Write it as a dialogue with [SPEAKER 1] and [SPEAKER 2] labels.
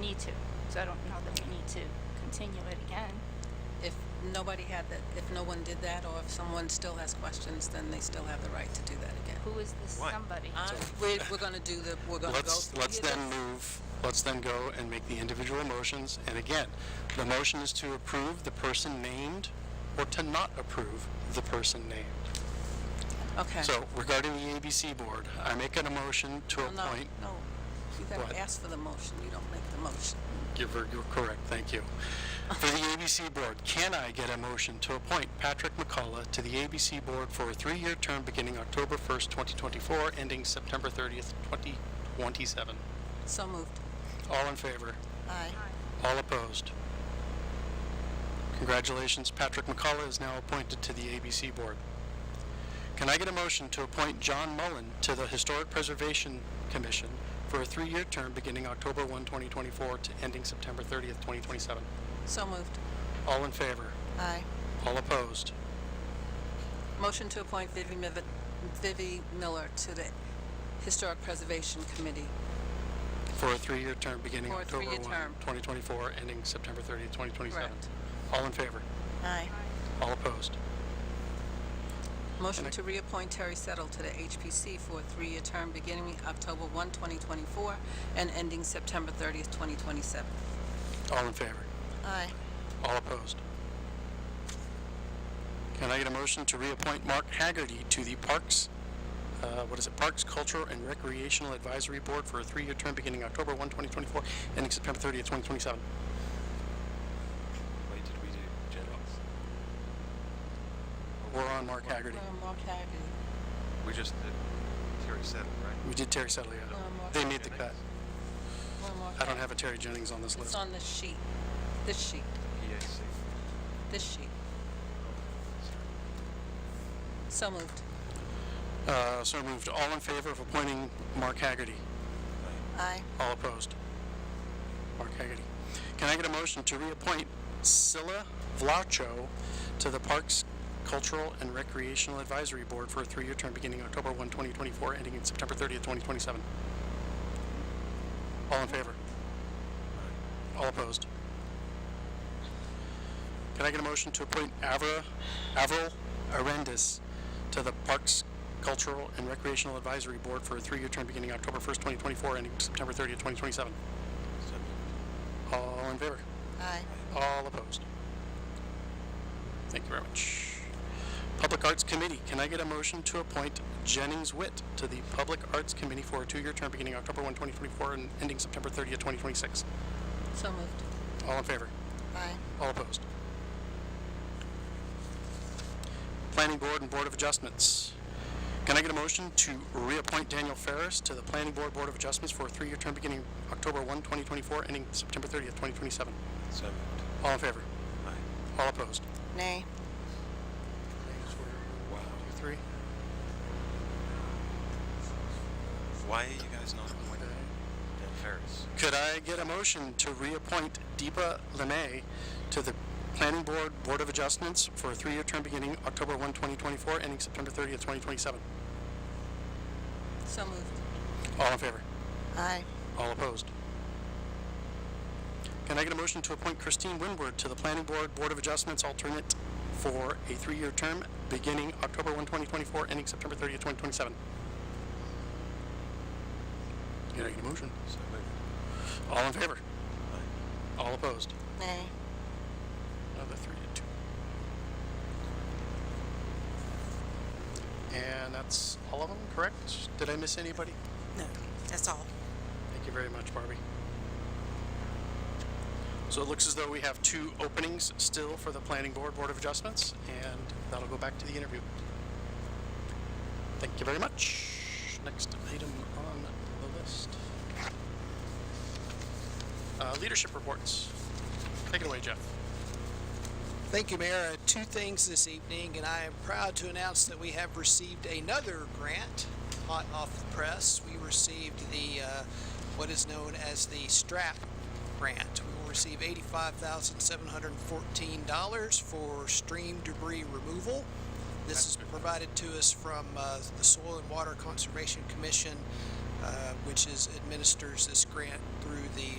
[SPEAKER 1] need to, so I don't know that we need to continue it again.
[SPEAKER 2] If nobody had that, if no one did that, or if someone still has questions, then they still have the right to do that again.
[SPEAKER 1] Who is this
[SPEAKER 3] Why?
[SPEAKER 1] somebody?
[SPEAKER 2] Uh, We're, we're gonna do the, we're gonna go
[SPEAKER 4] Let's,
[SPEAKER 2] through.
[SPEAKER 4] let's
[SPEAKER 2] the-
[SPEAKER 4] then move, let's then go and make the individual motions. And again, the motion is to approve the person named or to not approve the person named.
[SPEAKER 2] Okay.
[SPEAKER 4] So regarding the ABC Board, I make an emotion to
[SPEAKER 2] Well, No,
[SPEAKER 4] appoint.
[SPEAKER 2] no, you gotta
[SPEAKER 4] What?
[SPEAKER 2] ask for the motion, you don't make the motion.
[SPEAKER 4] You're, ver- you're correct, thank you. For the ABC Board, can I get a motion to appoint Patrick McCullough to the ABC Board for a three-year term beginning October 1st, 2024, ending September 30th, 2027?
[SPEAKER 2] So moved.
[SPEAKER 4] All in favor?
[SPEAKER 2] Aye.
[SPEAKER 4] All opposed? Congratulations, Patrick McCullough is now appointed to the ABC Board. Can I get a motion to appoint John Mullen to the Historic Preservation Commission for a three-year term beginning October 1, 2024 to ending September 30th, 2027?
[SPEAKER 2] So moved.
[SPEAKER 4] All in favor?
[SPEAKER 2] Aye.
[SPEAKER 4] All opposed?
[SPEAKER 2] Motion to appoint Vivi Miv- Vivi Miller to the Historic Preservation Committee.
[SPEAKER 4] For a three-year term beginning
[SPEAKER 2] For a
[SPEAKER 4] October 1,
[SPEAKER 2] three-year term.
[SPEAKER 4] 2024, ending September 30th, 2027?
[SPEAKER 2] Correct.
[SPEAKER 4] All in favor?
[SPEAKER 2] Aye.
[SPEAKER 4] All opposed?
[SPEAKER 2] Motion to reappoint Terry Settle to the HPC for a three-year term beginning October 1, 2024, and ending September 30th, 2027.
[SPEAKER 4] All in favor?
[SPEAKER 2] Aye.
[SPEAKER 4] All opposed? Can I get a motion to reappoint Mark Haggerty to the Parks, uh, what is it, Parks Cultural and Recreational Advisory Board for a three-year term beginning October 1, 2024, ending September 30th, 2027?
[SPEAKER 3] Wait, did we do generals?
[SPEAKER 4] We're on Mark Haggerty.
[SPEAKER 2] Mark Haggerty.
[SPEAKER 3] We just did Terry Settle, right?
[SPEAKER 4] We did Terry Settle,
[SPEAKER 2] Uh,
[SPEAKER 4] yeah. They made the cut.
[SPEAKER 2] We're Mark
[SPEAKER 4] I don't have a Terry Jennings on this
[SPEAKER 2] It's
[SPEAKER 4] list.
[SPEAKER 2] on the sheet, this sheet,
[SPEAKER 3] EAC.
[SPEAKER 2] this sheet. So moved.
[SPEAKER 4] Uh, So moved. All in favor of appointing Mark Haggerty?
[SPEAKER 2] Aye.
[SPEAKER 4] All opposed? Mark Haggerty. Can I get a motion to reappoint Scylla Vlacho to the Parks Cultural and Recreational Advisory Board for a three-year term beginning October 1, 2024, ending in September 30th, 2027? All in favor? All opposed? Can I get a motion to appoint Avra, Avril Arendis to the Parks Cultural and Recreational Advisory Board for a three-year term beginning October 1st, 2024, ending September 30th, 2027?
[SPEAKER 3] So moved.
[SPEAKER 4] All in favor?
[SPEAKER 2] Aye.
[SPEAKER 4] All opposed? Thank you very much. Public Arts Committee, can I get a motion to appoint Jennings Witt to the Public Arts Committee for a two-year term beginning October 1, 2024, and ending September 30th, 2026?
[SPEAKER 2] So moved.
[SPEAKER 4] All in favor?
[SPEAKER 2] Aye.
[SPEAKER 4] All opposed? Planning Board and Board of Adjustments. Can I get a motion to reappoint Daniel Ferris to the Planning Board Board of Adjustments for a three-year term beginning October 1, 2024, ending September 30th, 2027?
[SPEAKER 3] So moved.
[SPEAKER 4] All in favor?
[SPEAKER 3] Aye.
[SPEAKER 4] All opposed?
[SPEAKER 2] Nay.
[SPEAKER 3] Wow.
[SPEAKER 4] Three.
[SPEAKER 3] Why are you guys not appointing Dan Ferris?
[SPEAKER 4] Could I get a motion to reappoint Deepa Lemay to the Planning Board Board of Adjustments for a three-year term beginning October 1, 2024, ending September 30th, 2027?
[SPEAKER 2] So moved.
[SPEAKER 4] All in favor?
[SPEAKER 2] Aye.
[SPEAKER 4] All opposed? Can I get a motion to appoint Christine Winward to the Planning Board Board of Adjustments alternate for a three-year term beginning October 1, 2024, ending September 30, 2027? Can I get a motion?
[SPEAKER 3] So moved.
[SPEAKER 4] All in favor?
[SPEAKER 3] Aye.
[SPEAKER 4] All opposed?
[SPEAKER 2] Nay.
[SPEAKER 4] Another three to two. And that's all of them, correct? Did I miss anybody?
[SPEAKER 5] No, that's all.
[SPEAKER 4] Thank you very much, Barbie. So it looks as though we have two openings still for the Planning Board, Board of Adjustments, and that'll go back to the interview. Thank you very much. Next item on the list. Uh, Leadership reports. Take it away, Jeff.
[SPEAKER 6] Thank you, Mayor. Uh, Two things this evening, and I am proud to announce that we have received another grant, hot off the press. We received the, uh, what is known as the STRAP grant. We will receive $85,714 for stream debris removal. This is provided to us from uh, the Soil and Water Conservation Commission, uh, which is administers this grant through the